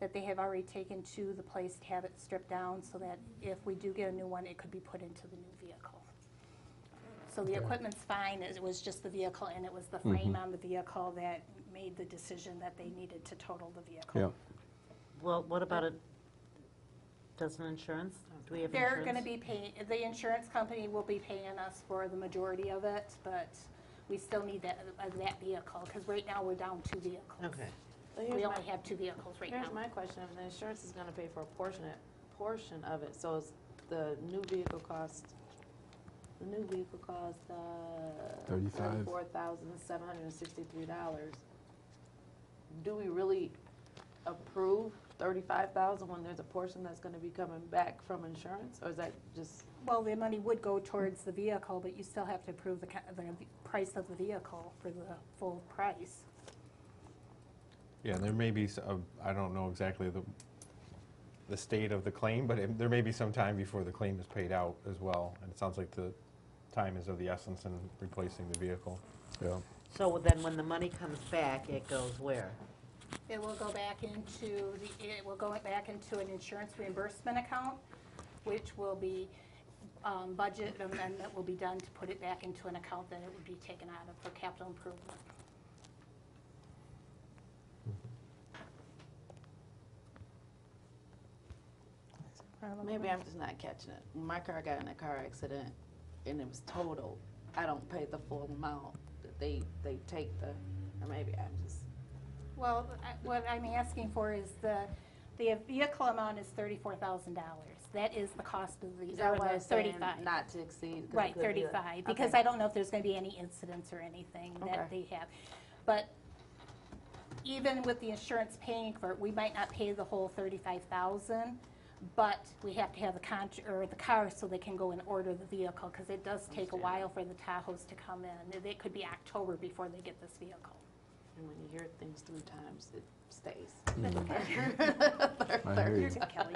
that they have already taken to the place to have it stripped down so that if we do get a new one, it could be put into the new vehicle. So the equipment's fine, it was just the vehicle and it was the frame on the vehicle that made the decision that they needed to total the vehicle. Yeah. Well, what about a, doesn't insurance, do we have insurance? They're going to be paying, the insurance company will be paying us for the majority of it, but we still need that, of that vehicle, because right now we're down two vehicles. Okay. Well, We Here's my, only have two vehicles right here's now. my question, if the insurance is gonna pay for a portion, it- portion of it, so is the new vehicle cost, the new vehicle cost, uh, 35. thirty-four thousand, seven hundred and sixty-three dollars. Do we really approve thirty-five thousand when there's a portion that's gonna be coming back from insurance, or is that just, Well, the money would go towards the vehicle, but you still have to approve the, ca- the v- price of the vehicle for the full price. Yeah, there may be, s- a- I don't know exactly the, the state of the claim, but it- there may be some time before the claim is paid out as well. And it sounds like the time is of the essence in replacing the vehicle. Yeah. So then when the money comes back, it goes where? It will go back into, the it will go back into an insurance reimbursement account, which will be, um, budget amendment will be done to put it back into an account that it would be taken out of for capital improvement. maybe I'm just not catching it. When My car got in a car accident and it was totaled, I don't pay the full amount, they, they take the, or maybe I'm just. Well, I- what I'm asking for is the, the vehicle amount is thirty-four thousand dollars. That is the cost of the, Is that why or the it's saying thirty-five. not to exceed? 'cause it Right, could be a- 35, because Okay. I don't know if there's going to be any incidents or anything that they Okay. have. But even with the insurance paying for it, we might not pay the whole 35,000, but we have to have the contract, or the car, so they can go and order the vehicle, because it does take a Understand. while for the Tahoes to come in. It- It could be October before they get this vehicle. And when you hear things three times, it stays. I hear you. Your turn, Kelly.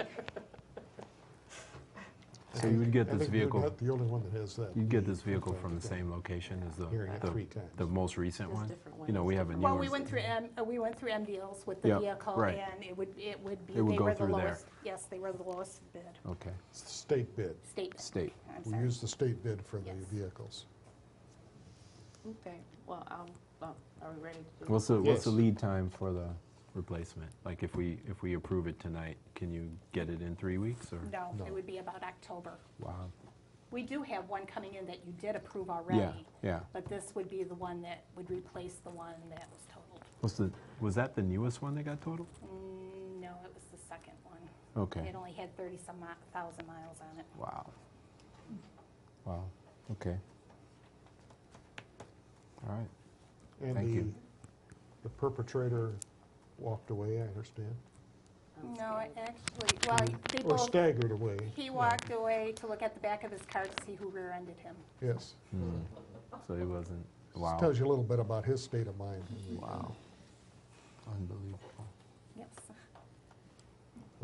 So you would get I this think you're vehicle, not The only one that has that. you'd get this vehicle from the same location as the, Hearing it the- three the times. most recent Just one? different You know, we ones. have a new Well, we one. went through, M- uh, we went through M deals with the Yeah, vehicle, right. and it would, it would be, they It would go were the through there. lowest. Yes, they were the lowest bid, Okay, State bid. state bid. state. I'm We sorry. use the state bid for the Yes. vehicles. Okay, well, I'll- well, are we ready to do? What's the, what's the Yes. lead time for the replacement? Like if we, if we approve it tonight, can you get it in three weeks or? No, No. it would be about October. Wow. We do have one coming in that you did approve Yeah, already, yeah. but this would be the one that would replace the one that was totaled. What's the, was that the newest one that got totaled? Mm, No, it was the second one. Okay. It only had thirty-some thousand miles on it. Wow. Wow, okay. All right. And Thank the- you. The perpetrator walked away, I understand. I'm No, I scared. actually, Mm. well, they Or both, staggered away. he yeah, walked away to look at the back of his car to see who rear-ended him. Yes. Hmm. So it wasn't, This wow. Tells you a little bit about his state of mind. when we- Wow. Unbelievable. Yes.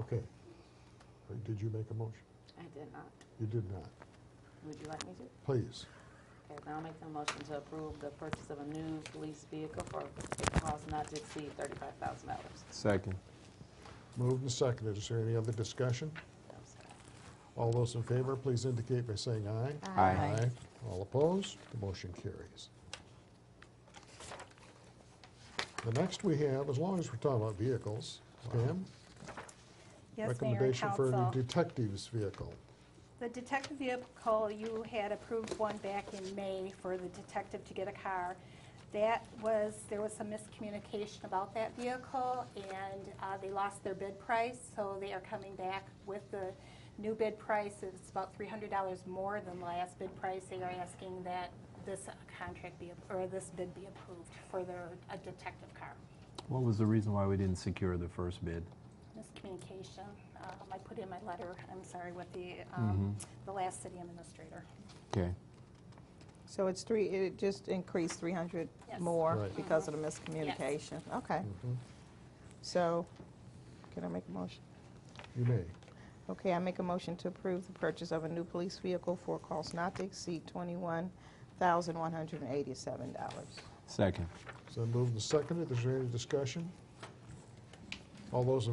Okay. Or Did you make a motion? I did not. You did not. Would you like me to? Please. Okay, now I'll make the motion to approve the purchase of a new police vehicle for a cost not to exceed thirty-five thousand dollars. Second. Moved and seconded. Is there any other discussion? All those in favor, please indicate by saying aye. Aye. Aye. All opposed? The motion carries. The next we have, as long as we're talking about vehicles, Pam? Yes, Mayor and Recommendation for a Council. new detective's vehicle. The detective vehicle, you had approved one back in May for the detective to get a car. That was, there was some miscommunication about that vehicle, and uh, they lost their bid price, so they are coming back with the new bid price. It's about $300 more than the last bid price. They are asking that this contract be, or this bid be approved for their a detective car. What was the reason why we didn't secure the first bid? Miscommunication, Um, I put in my letter, I'm sorry, with the, um, the last city administrator. Okay. So it's three, it just increased 300 Yes. more Right. because of the miscommunication? Okay. Mm-hmm. So, can I make a motion? You may. Okay, I make a motion to approve the purchase of a new police vehicle for a cost not to exceed $21,187. Second. So moved and seconded. Is there any discussion? All those in